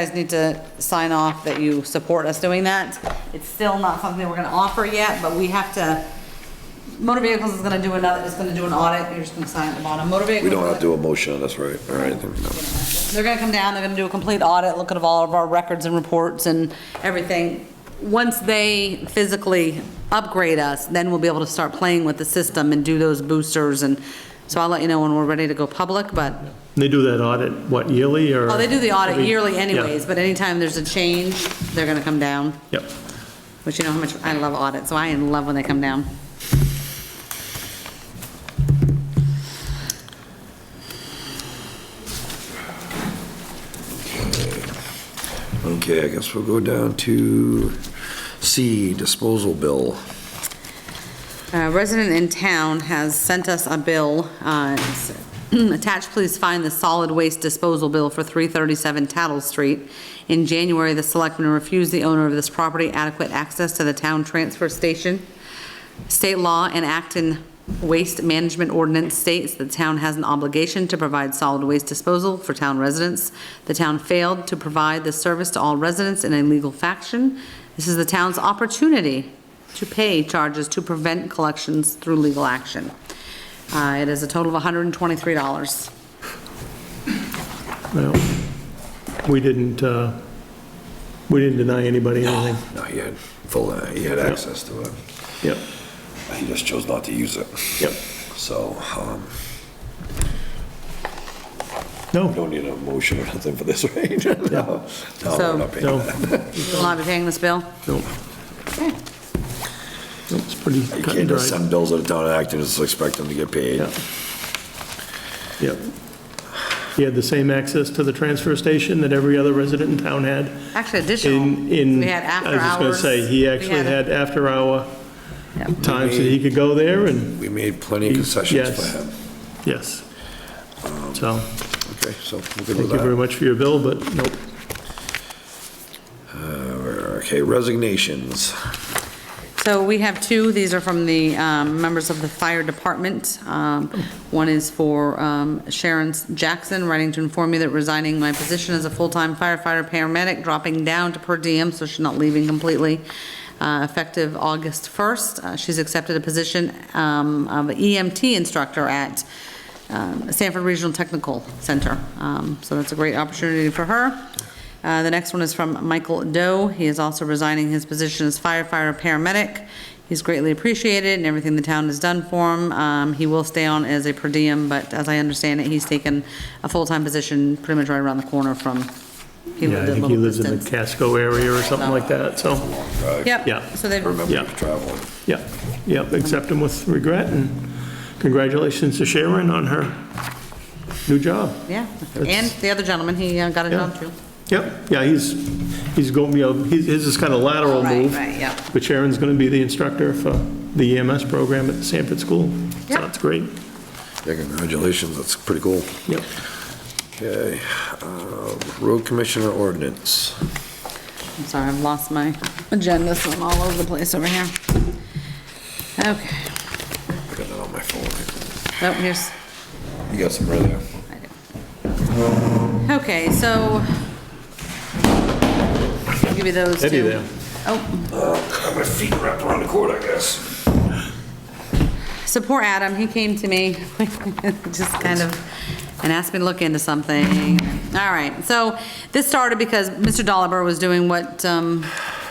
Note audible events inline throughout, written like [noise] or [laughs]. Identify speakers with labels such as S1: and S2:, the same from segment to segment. S1: guys need to sign off that you support us doing that. It's still not something we're gonna offer yet, but we have to, motor vehicles is gonna do another, is gonna do an audit, you're just gonna sign at the bottom, motor vehicles.
S2: We don't have to do a motion on this, right? All right, there we go.
S1: They're gonna come down, they're gonna do a complete audit, look at all of our records and reports and everything. Once they physically upgrade us, then we'll be able to start playing with the system and do those boosters and, so I'll let you know when we're ready to go public, but,
S3: They do that audit, what, yearly or?
S1: oh, they do the audit
S3: every-
S1: yearly
S3: Yeah,
S1: anyways, but anytime there's a change, they're gonna come down,
S3: Yep.
S1: which you know how much I love audits, so I love when they come down.
S2: Okay, I guess we'll go down to C, disposal bill.
S1: A resident in town has sent us a bill. uh, it's, [clears throat] Attached, please find the solid waste disposal bill for 337 Tattle Street. In January, the selectmen refused the owner of this property adequate access to the town transfer station. State law and Acton Waste Management Ordinance states the town has an obligation to provide solid waste disposal for town residents. The town failed to provide the service to all residents in a legal fashion. This is the town's opportunity to pay charges to prevent collections through legal action. Uh, It is a total of $123.
S3: Well, we didn't, uh, we didn't deny anybody anything.
S2: No, he had full, uh, he had access to it.
S3: Yep,
S2: He just chose not to use it.
S3: yep.
S2: So, um, we
S3: No,
S2: don't need a motion or nothing for this, [laughs] right? No, no,
S1: So-
S2: we're not paying
S3: no,
S2: that.
S1: You will not be paying this bill?
S3: no. It's pretty
S2: You
S3: cut and
S2: can't just
S3: dry.
S2: send bills to the town of Acton and just expect them to get paid.
S3: Yeah. Yep. He had the same access to the transfer station that every other resident in town had.
S1: Actually,
S3: In,
S1: additional.
S3: in.
S1: We had after hours.
S3: I was just going to say, he
S1: We
S3: actually had after-hour
S1: Yep.
S3: times that he could go there and,
S2: We made plenty of concessions
S3: Yes.
S2: for him.
S3: yes.
S2: Okay,
S3: So,
S2: Um, so we're good with
S3: thank you very
S2: that.
S3: much for your bill, but nope.
S2: Okay, resignations.
S1: So we have two, these are from the um, members of the fire department. Um, One is for um, Sharon Jackson, writing to inform me that resigning my position as a full-time firefighter paramedic, dropping down to per diem, so she's not leaving completely, uh, effective August 1st. Uh, She's accepted a position um, of EMT instructor at um, Sanford Regional Technical Center. Um, So that's a great opportunity for her. Uh, The next one is from Michael Doe. He is also resigning his position as firefighter paramedic. He's greatly appreciated and everything the town has done for him. Um, He will stay on as a per diem, but as I understand it, he's taken a full-time position pretty much right around the corner from, he
S3: Yeah, I
S1: lived a
S3: think he
S1: little
S3: lives in the
S1: distance.
S3: Casco area or something like that, so, yeah.
S1: Yep, so they've,
S2: Remember,
S3: Yeah.
S2: he's traveling.
S3: yeah, yeah, accept him with regret, and congratulations to Sharon on her new job.
S1: yeah. And the other gentleman, he uh, got a
S3: Yeah.
S1: job too.
S3: Yep, yeah, he's, he's going, you know, his his is kind of lateral
S1: Right,
S3: move.
S1: right, yep.
S3: But Sharon's going to be the instructor for the EMS program at the Sanford School. So
S1: Yep.
S3: that's great,
S2: Yeah, congratulations, that's pretty cool.
S3: yep.
S2: Okay, uh, road commissioner ordinance.
S1: I'm sorry, I've lost my agenda, so I'm all over the place over here. Okay,
S2: I got that on my phone.
S1: oh, here's,
S2: You got some right there.
S1: I do. Okay, so, I'll give you those
S3: Eddie
S1: two.
S3: there.
S1: Oh,
S2: Got my feet wrapped around the cord, I guess.
S1: so poor Adam, he came to me, [laughs] just kind of, and asked me to look into something. All right, so this started because Mr. Dolliver was doing what, um,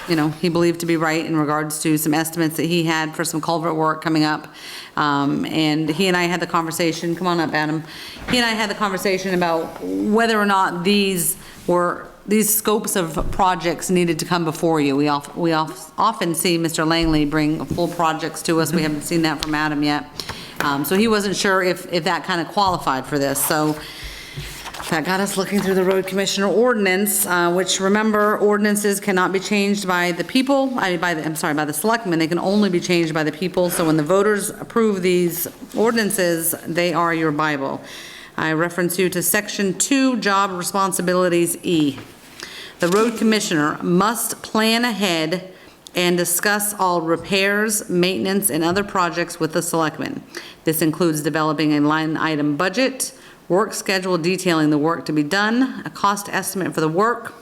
S1: you know, he believed to be right in regards to some estimates that he had for some culvert work coming up. Um, And he and I had the conversation, come on up, Adam. He and I had the conversation about whether or not these were these scopes of projects needed to come before you. We of, we of- often see Mr. Langley bring full projects to us, we haven't seen that from Adam yet. Um, so he wasn't sure if, if that kind of qualified for this, so that got us looking through the road commissioner ordinance, uh, which remember ordinances cannot be changed by the people, I mean, by, the I'm sorry, by the selectmen, they can only be changed by the people, so when the voters approve these ordinances, they are your Bible. I reference you to section two, job responsibilities E. The road commissioner must plan ahead and discuss all repairs, maintenance, and other projects with the selectmen. This includes developing a line item budget, work schedule detailing the work to be done, a cost estimate for the work,